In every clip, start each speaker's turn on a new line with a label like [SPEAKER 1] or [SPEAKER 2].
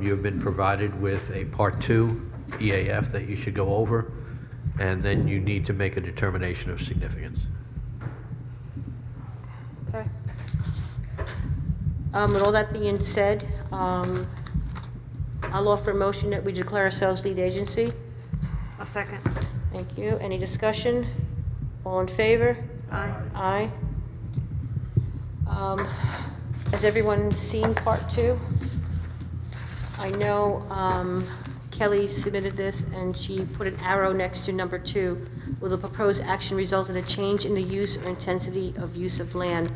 [SPEAKER 1] You have been provided with a Part 2 EAF that you should go over, and then you need to make a determination of significance.
[SPEAKER 2] Okay. Um, With all that being said, um, I'll offer a motion that we declare ourselves lead agency.
[SPEAKER 3] A second.
[SPEAKER 2] Thank you. Any discussion? All in favor?
[SPEAKER 3] Aye.
[SPEAKER 2] Aye. Um, Has everyone seen Part 2? I know um, Kelly submitted this, and she put an arrow next to number 2. Will the proposed action result in a change in the use or intensity of use of land?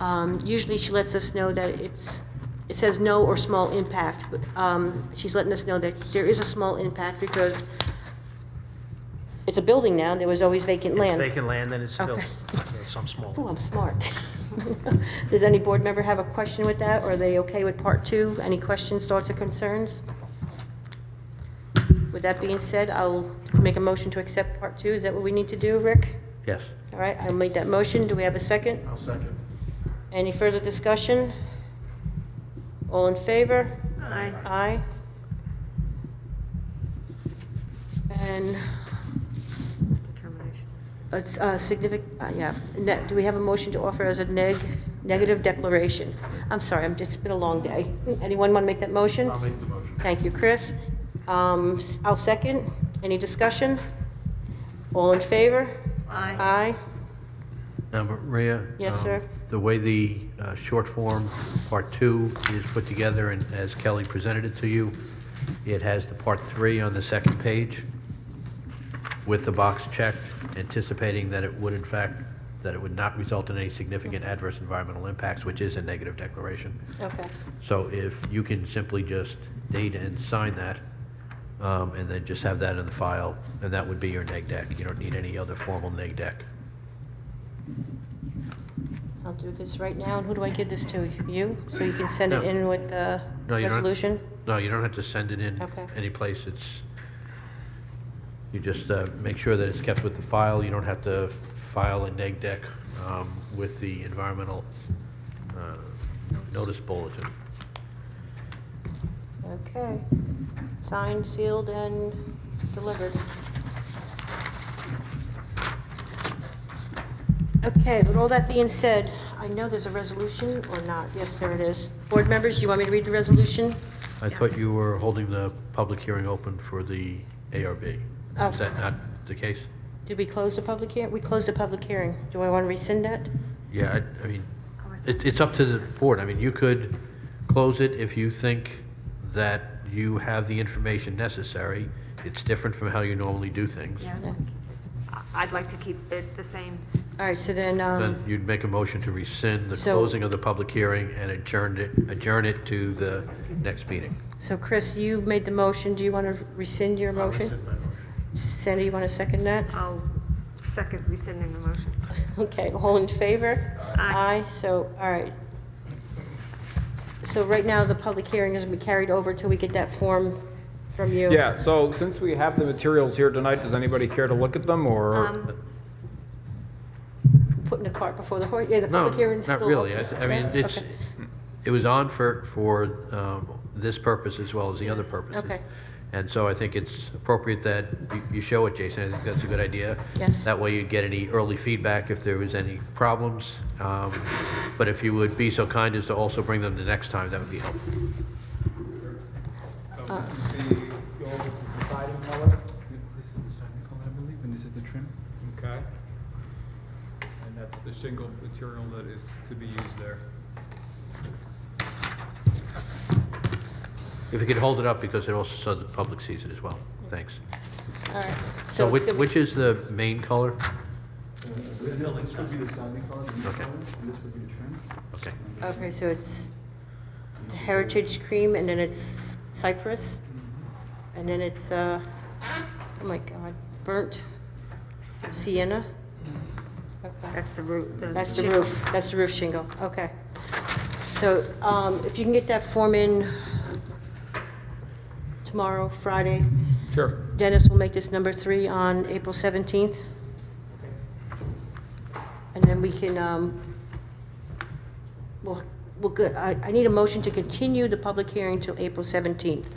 [SPEAKER 2] Um, Usually, she lets us know that it's, it says no or small impact. but, um, She's letting us know that there is a small impact because it's a building now, there was always vacant land.
[SPEAKER 4] It's vacant land, and it's
[SPEAKER 2] Okay.
[SPEAKER 4] still, some small.
[SPEAKER 2] Ooh, I'm smart. Does any board member have a question with that, or are they okay with part two? Any questions, thoughts, or concerns? With that being said, I'll make a motion to accept part two. Is that what we need to do, Rick?
[SPEAKER 1] Yes?
[SPEAKER 2] All right, I'll make that motion. Do we have a second?
[SPEAKER 4] I'll second.
[SPEAKER 2] Any further discussion? All in favor?
[SPEAKER 3] Aye.
[SPEAKER 2] Aye. And
[SPEAKER 3] Determination.
[SPEAKER 2] It's significant, uh, yeah. Ne- Do we have a motion to offer as a neg, negative declaration? I'm sorry, I'm, it's been a long day. Anyone want to make that motion? I'll make the motion. Thank you, Chris. Um, s- I'll second. Any discussion? All in favor?
[SPEAKER 3] Aye.
[SPEAKER 2] Aye.
[SPEAKER 1] Now, Maria?
[SPEAKER 2] Yes,
[SPEAKER 1] um,
[SPEAKER 2] sir.
[SPEAKER 1] The way the uh, short form, Part 2, is put together, and as Kelly presented it to you, it has the Part 3 on the second page with the box checked, anticipating that it would in fact, that it would not result in any significant adverse environmental impacts, which is a negative declaration.
[SPEAKER 2] Okay.
[SPEAKER 1] So if you can simply just date and sign that, um, and then just have that in the file, and that would be your neg deck. You don't need any other formal neg deck.
[SPEAKER 2] I'll do this right now. And who do I give this to? You? So you can send it
[SPEAKER 1] No.
[SPEAKER 2] in with the
[SPEAKER 1] No, you don't-
[SPEAKER 2] resolution?
[SPEAKER 1] No, you don't have to send it in
[SPEAKER 2] Okay.
[SPEAKER 1] any place. It's, you just uh, make sure that it's kept with the file. You don't have to file a neg deck um, with the environmental uh, notice bulletin.
[SPEAKER 2] Okay. Signed, sealed, and delivered. Okay, but all that being said, I know there's a resolution or not. Yes, there it is. Board members, do you want me to read the resolution?
[SPEAKER 1] I thought you were holding the public hearing open for the ARB.
[SPEAKER 2] Oh.
[SPEAKER 1] Is that not the case?
[SPEAKER 2] Did we close the public hearing? We closed the public hearing. Do I want to rescind that?
[SPEAKER 1] Yeah, I, I mean, it, it's up to the board. I mean, you could close it if you think that you have the information necessary. It's different from how you normally do things.
[SPEAKER 3] Yeah.
[SPEAKER 2] No.
[SPEAKER 3] I- I'd like to keep it the same.
[SPEAKER 2] All right, so then,
[SPEAKER 1] Then
[SPEAKER 2] um,
[SPEAKER 1] you'd make a motion to rescind the
[SPEAKER 2] So-
[SPEAKER 1] closing of the public hearing and adjourn it, adjourn it to the next meeting.
[SPEAKER 2] so Chris, you made the motion. Do you want to rescind your motion? Sandy, you want to second that?
[SPEAKER 3] I'll second rescinding the motion.
[SPEAKER 2] Okay, all in favor?
[SPEAKER 3] Aye.
[SPEAKER 2] so, all right. So right now, the public hearing is going to be carried over till we get that form from you.
[SPEAKER 5] Yeah, so since we have the materials here tonight, does anybody care to look at them, or?
[SPEAKER 3] Um,
[SPEAKER 2] Putting the cart before the horse, yeah, the
[SPEAKER 1] No,
[SPEAKER 2] public hearing's still.
[SPEAKER 1] not really. I
[SPEAKER 2] open.
[SPEAKER 1] s- I mean, it's,
[SPEAKER 2] Okay.
[SPEAKER 1] it was on for, for um, this purpose as well as the other purposes.
[SPEAKER 2] Okay.
[SPEAKER 1] And so I think it's appropriate that you- you show it, Jason. I think that's a good idea.
[SPEAKER 2] Yes.
[SPEAKER 1] That way you'd get any early feedback if there was any problems. Um, But if you would be so kind as to also bring them the next time, that would be helpful.
[SPEAKER 6] Um, This is the, the old- this is the siding color. This is the siding color, I believe, and this is the trim.
[SPEAKER 5] Okay.
[SPEAKER 6] And that's the shingle material that is to be used there.
[SPEAKER 1] If you could hold it up, because it also, so the public sees it as well. Thanks.
[SPEAKER 2] All right,
[SPEAKER 1] So
[SPEAKER 2] so,
[SPEAKER 1] which,
[SPEAKER 2] it's gonna-
[SPEAKER 1] which is the main color?
[SPEAKER 6] This would be the siding color, the new
[SPEAKER 1] Okay.
[SPEAKER 6] color, and this would be the trim.
[SPEAKER 1] Okay.
[SPEAKER 2] okay, so it's Heritage Cream, and then it's Cypress, and then it's, uh, oh my God, Burnt Sienna? Okay.
[SPEAKER 3] That's the root.
[SPEAKER 2] That's the roof, that's the roof shingle, okay. So um, if you can get that form in tomorrow, Friday,
[SPEAKER 5] Sure.
[SPEAKER 2] Dennis will make this number three on April 17th. And then we can, um, we'll, well, good. I I need a motion to continue the public hearing till April 17th.